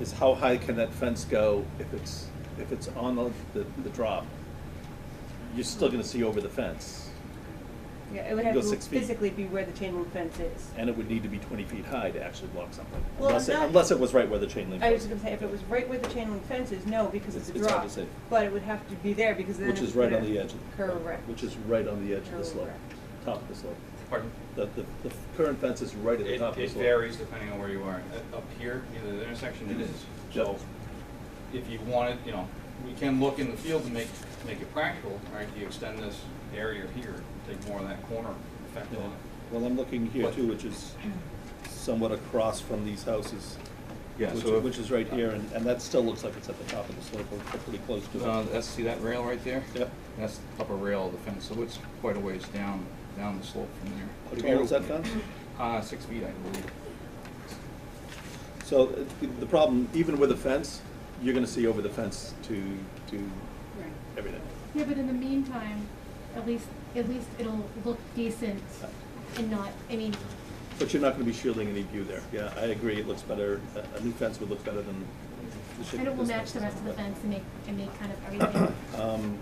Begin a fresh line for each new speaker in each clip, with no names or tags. is how high can that fence go if it's, if it's on the, the, the drop? You're still gonna see over the fence,
Yeah, it would
You
have
go
to
six feet.
physically be where the chain link fence is.
and it would need to be twenty feet high to actually block something.
Well,
Unless, it-
not-
unless it was right where the chain link was.
I was gonna say, if it was right where the chain link fence is, no, because it's a
It's- it's hard
drop.
to say.
But it would have to be there because then.
Which
if
is
you
right
put
on
a-
the edge of.
Correct.
Which is right on the edge of the slope,
Correct.
top of the slope.
Pardon?
The, the, the current fence is right at the
It,
top of the
it
slope.
varies depending on where you are. Uh, Up here, near the intersection, it is. So if you wanted, you know, we can look in the field to make, make it practical, right? If you extend this area here, take more of that corner effect
Yeah.
on it.
Well, I'm looking here too, which is somewhat across from these houses.
Yeah,
which-
so if-
Which is right here, and, and that still looks like it's at the top of the slope, we're pretty close to
Uh,
it.
that's, see that rail right there?
Yep.
That's the upper rail of the fence, so it's quite a ways down, down the slope from there.
How tall is that fence?
Uh, six feet, I believe.
So uh, the- the problem, even with a fence, you're gonna see over the fence to, to
Right.
everything.
Yeah, but in the meantime, at least, at least it'll look decent and not, I mean,
But you're not gonna be shielding any view there. Yeah, I agree, it looks better, a, a new fence would look better than the shape
and it
of
will
this
match
fence.
the rest of the fence and make, and make kind of everything.
Um,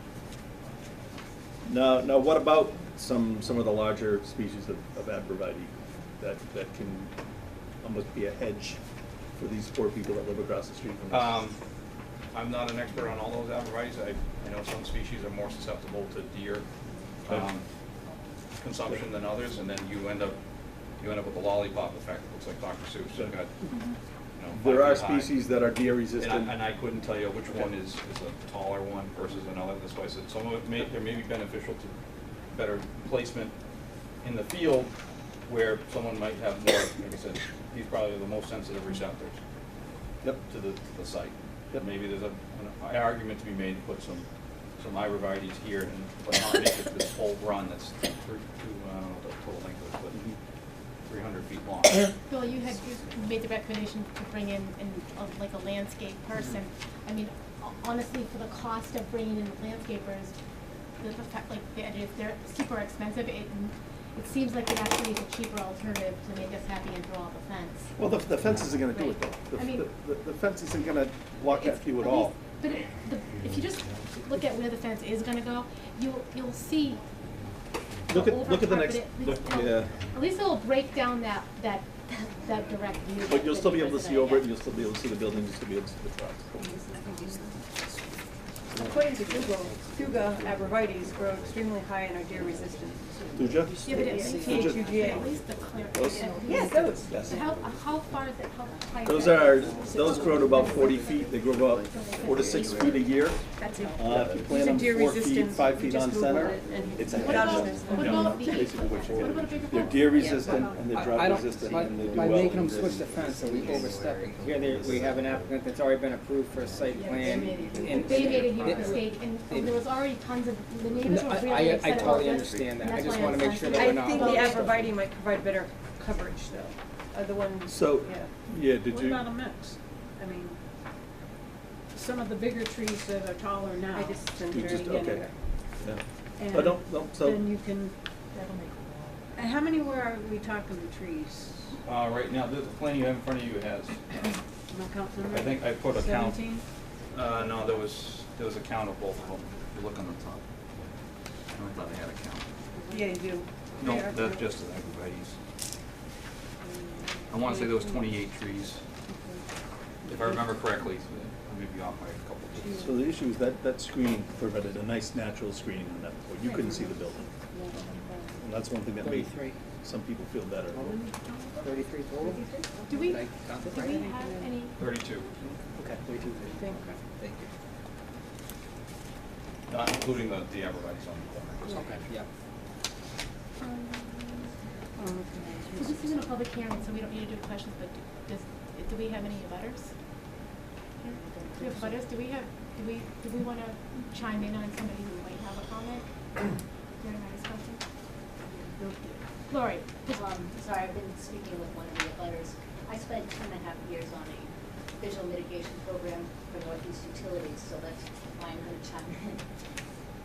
Now, now what about some, some of the larger species of, of abreviate that, that can almost be a hedge for these poor people that live across the street from us?
Um, I'm not an expert on all those arborvitaes. I, I know some species are more susceptible to deer, um, consumption than others, and then you end up, you end up with a lollipop effect. Looks like Dr. Seuss, you've got, you know.
There are
five feet high.
species that are deer
And I,
resistant.
and I couldn't tell you which one is, is a taller one versus another, that's why I said some of it may, there may be beneficial to better placement in the field where someone might have more, like I said, he's probably the most sensitive receptors
Yep,
to the, the site.
Yep.
Maybe there's a, an argument to be made to put some, some arborvitae's here and, but not make it this whole run that's three, two, I don't know what the total length is,
Mhm.
but three hundred feet long.
Bill, you had, you made the recommendation to bring in, in, a- like a landscape person. I mean, ho- honestly, for the cost of bringing in landscapers, the, the fact, like, the idea is they're super expensive, it, it seems like it actually is a cheaper alternative to make us happy and draw up a fence.
well, the, the fence isn't gonna do it
Right.
though. The-
I mean-
The, the fence isn't gonna block that
It's-
view at
least-
all.
But it- the- if you just look at where the fence is gonna go, you'll, you'll see
Look
the
at, look at the next,
overcarpeted- at
look,
least it'll-
yeah,
At least it'll break down that, that, that direct view.
but you'll
that
still be
the
able to see
resident
over it,
gets.
and you'll still be able to see the building, you'll still be able to see the trucks.
According to Google, Thuga abrevieties grow extremely high and are deer resistant.
Thuja?
Yeah, but at
Yeah.
least,
Yeah.
at least the clear.
Those-
Yes, those.
Yes.
So how, how far is it, how high? is
Those
that?
are, those grow to about forty feet, they grow about four to six feet a year.
That's it.
Uh, if you
These
plant
are
them
deer
four feet,
resistant.
five
You
feet
just
on
Googled
center,
it and
it's a
What about,
hedge.
what about the eight
Basically
foot
what
fence?
you're
What
doing.
about a bigger fence?
They're deer resistant and they're
I- I
drought
don't-
resistant
by-
and they do
By
well.
making them switch the fence, are we overstepping? Here, there, we have an applicant that's already been approved for a site plan. and-
They made a huge
It-
mistake, and
it-
there was already tons of, the neighbors
No,
were
I-
really
I,
upset
I
about
totally
this,
understand that,
and
I
that's
just
why
wanna
I'm
make sure
sensitive.
that
I
we're not.
think the
Yeah.
abreviate might provide better coverage though, uh, the one,
So,
yeah.
yeah, did
What
you,
about a mix? I mean, some of the bigger trees that are taller now,
I just didn't
you
really
just,
get
okay.
it.
Yeah.
and
But don't,
then
don't, so,
you can,
That'll make
and how many were, are we talking the trees?
Uh, right now, the the plan you have in front of you has, uh,
Am I counting them
I
right?
think I put a count.
Seventeen?
Uh, no, there was, there was a count of both of them. If you look on the top. I thought I had a count.
Yeah, you do.
No,
Yeah.
that's just the everybody's. I wanna say there was twenty-eight trees, if I remember correctly, I may be off by a couple of trees.
so the issue is that, that screening provided a nice natural screening on that, point. you couldn't see the building. And that's one thing that made
Thirty-three.
some people feel better.
Thirty-three total?
Do we, do
Did I count it
we
uh, right?
have any,
Thirty-two,
Okay, thirty-two.
Thank
Thank you.
not including the, the everybody's on the corner. just
Okay, yeah.
um,
Oh,
嗯
okay.
so this isn't a public hearing, so we don't need to do questions, but do- does, do we have any butters? Do we have butters, do we have, do we, do we wanna chime in on somebody who might have a comment during our discussion? Lori, just-
Um, sorry, I've been speaking with one of the butters. I spent two and a half years on a visual mitigation program for Northeast Utilities, so that's why I'm gonna chime in.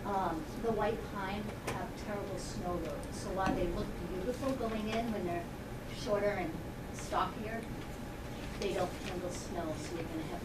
Um, the white pine have terrible snow loads, so while they look beautiful going in when they're shorter and stockier, they don't handle snow, so you're gonna have